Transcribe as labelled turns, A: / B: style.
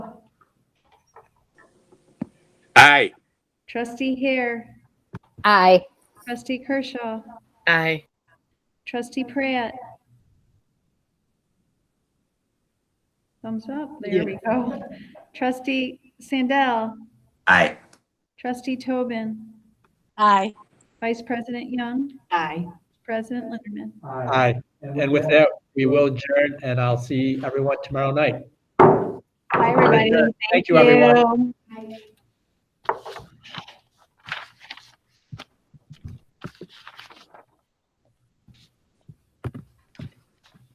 A: Aye.
B: Trustee Hare,
C: Aye.
B: Trustee Kershaw,
D: Aye.
B: Trustee Pratt. Thumbs up, there we go. Trustee Sandell,
E: Aye.
B: Trustee Tobin,
C: Aye.
B: Vice President Young,
C: Aye.
B: President Linderman.
F: Aye. And with that, we will adjourn and I'll see everyone tomorrow night.
C: Bye, everybody.
F: Thank you, everyone.